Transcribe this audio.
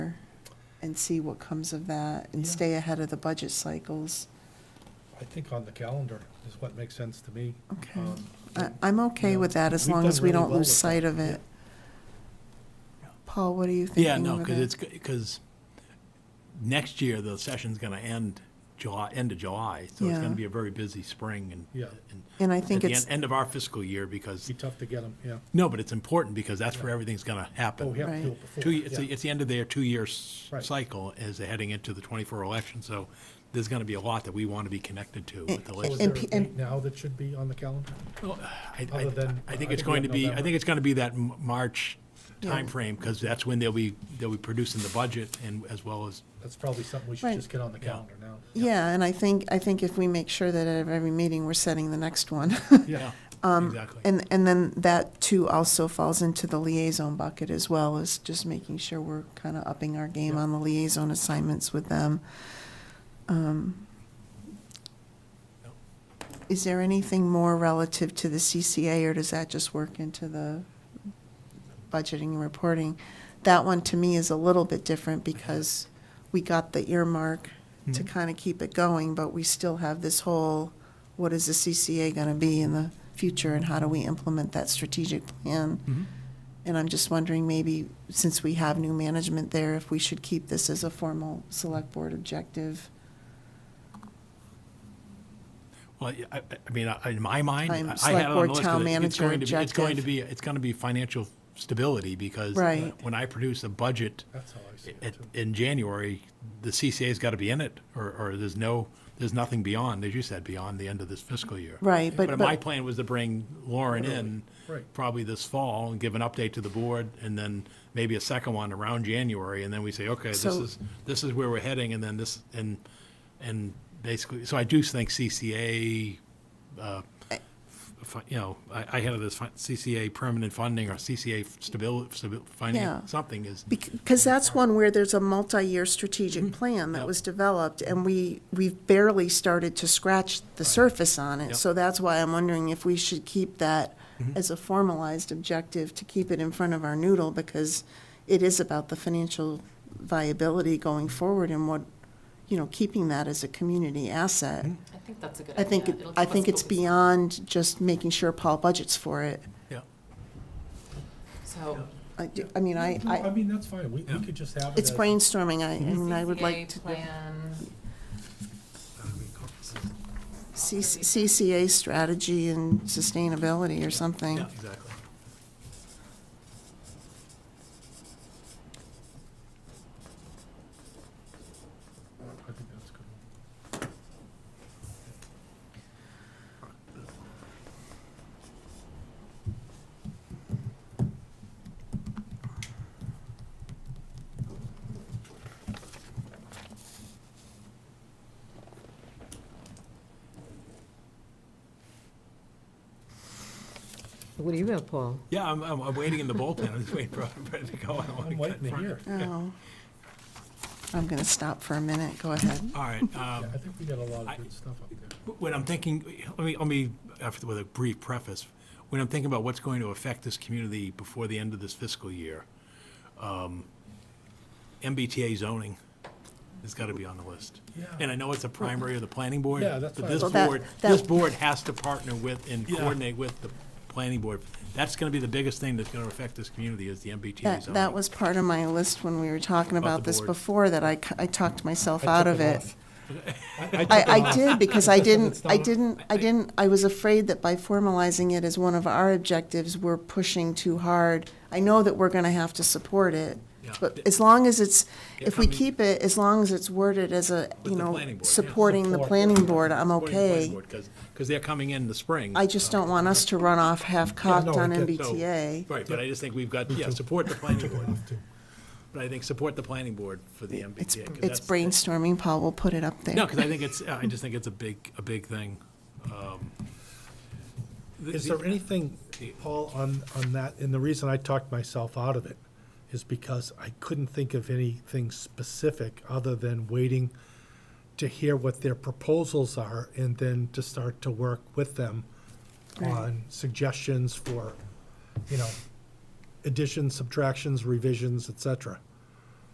and see what comes of that and Yeah. stay ahead of the budget cycles. I think on the calendar is what makes sense to me. Okay. Um, I, I'm okay Yeah. with that as We've long done as we really don't well lose with sight that. of it. Yeah. Paul, what are you thinking Yeah, of it? no, because it's, because next year, the session's going to end July, end of July, so it's going Yeah. to be a very busy spring and. Yeah. and And I at think the it's, en- End of our fiscal year, because, Be tough to get them, yeah. no, but it's important, because that's where everything's going to Oh, we have happen. to do Right. it before. Two, it's, yeah. the- it's the end of their two-year s- Right. cycle as they're heading into the 24 election, so there's going to be a lot that we want to be connected to with the And- So Oh, is there a legislature. P- and- date now that should be on the calendar? oh, Well, I, Other than- I, I I think think it's we going to have be, I November. think it's going to be that M- March Yeah. timeframe, because that's when they'll be, they'll be producing the budget and as well as, That's probably something we should Right. just get on the Yeah. calendar now. yeah, and I think, I think if we make sure that at every meeting, we're setting the next one. yeah, exactly. um, And, and then that too also falls into the liaison bucket as well, is just making sure we're kind of upping our game on the liaison assignments with them. Um, Yep. Is there anything more relative to the CCA, or does that just work into the budgeting and reporting? That one to me is a little bit different because we got the earmark to Mm-hmm. kind of keep it going, but we still have this whole, what is the CCA going to be in the future and how do we implement that strategic plan? And I'm just wondering, maybe, since we have new management there, if we should keep this as a formal select board objective? Well, I, I- I mean, I- in my mind, I I'm I had it select on the board, list. 'cause town it- it's manager going to be- It's going to objective. be, it's going to be financial stability, because uh, Right. when I produce a budget That's how I see it at- too. in January, the CCA's got to be in it, or, or there's no, there's nothing beyond, as you said, beyond the end of this fiscal year. Right, but- my but- plan was to bring Lauren in Right. probably this fall and give an update to the board, and then maybe a second one around January, and then we say, okay, this So- is, this is where we're heading, and then this, and, and basically, so I do think CCA, uh, fi- you know, I, I had this fi- CCA permanent funding or CCA stability, Yeah. finding something is, Because that's one where there's a multi-year strategic plan that Mm-hmm. Yep. was developed, and we, we've barely started to scratch the surface on it. Yep. Mm-hmm. So that's why I'm wondering if we should keep that as a formalized objective to keep it in front of our noodle, because it is about the financial viability going forward and what, you know, keeping that as a community asset. Mm-hmm. I think that's a good I idea. think, it- It'll I keep think us it's focused. beyond just making sure Paul budgets for it. yeah. So. I, do- I mean, I, I I, mean, that's fine. We, we Yeah. could just Mm-hmm. have it it's as- brainstorming, I, and I would CCA like to. Plan, C- CCA strategy and sustainability or something. Yeah, exactly. I think that's good. What do you about, Paul? Yeah, I'm, I'm, I'm waiting in the bullpen. I'm just waiting for for it to go. I don't wanna I'm get waiting in to front. hear. Oh, I'm going to stop for a minute. Go ahead. All right. um, Yeah, I think we got a lot I- of good stuff up there. When I'm thinking, let me, let me, after- with a brief preface, when I'm thinking about what's going to affect this community before the end of this fiscal year, um, MBTA zoning has got to be on the list. Yeah. And I know it's a primary of the planning board. Yeah, that's But what I this was- Well, that- board, that- this board has to partner with and Yeah. coordinate with the planning board. That's going to be the biggest thing that's going to affect this community is the MBTA That, zoning. that was part of my list when we were talking About about the this board. before, that I, c- I talked myself I out took of it it. off. I, I, took it I off. did, because I didn't, It's I not- didn't, I didn't, I was afraid that by formalizing it as one of our objectives, we're pushing too hard. I know that we're gonna have to support it, Yeah. but as long as it's, Yeah, if we I mean- keep it, as long as it's worded as a, With you the know, planning board, yeah. supporting the Support. planning board, I'm okay. Because, because they're coming in the spring. I just don't want us to run off half-cocked Yeah, no, I on get- So- MBTA. Right, but I just think we've got, yeah, support the planning board. But I think support the planning board for the MBTA. It's, 'cause it's that's- brainstorming, Paul, we'll put it up there. No, because I think it's, I just think it's a big, a big thing. Um, the- Is there anything, Paul, on, on that, and the reason I talked myself out of it is because I couldn't think of anything specific other than waiting to hear what their proposals are and then to start to work with them on suggestions for, you know, additions, subtractions, revisions, et cetera.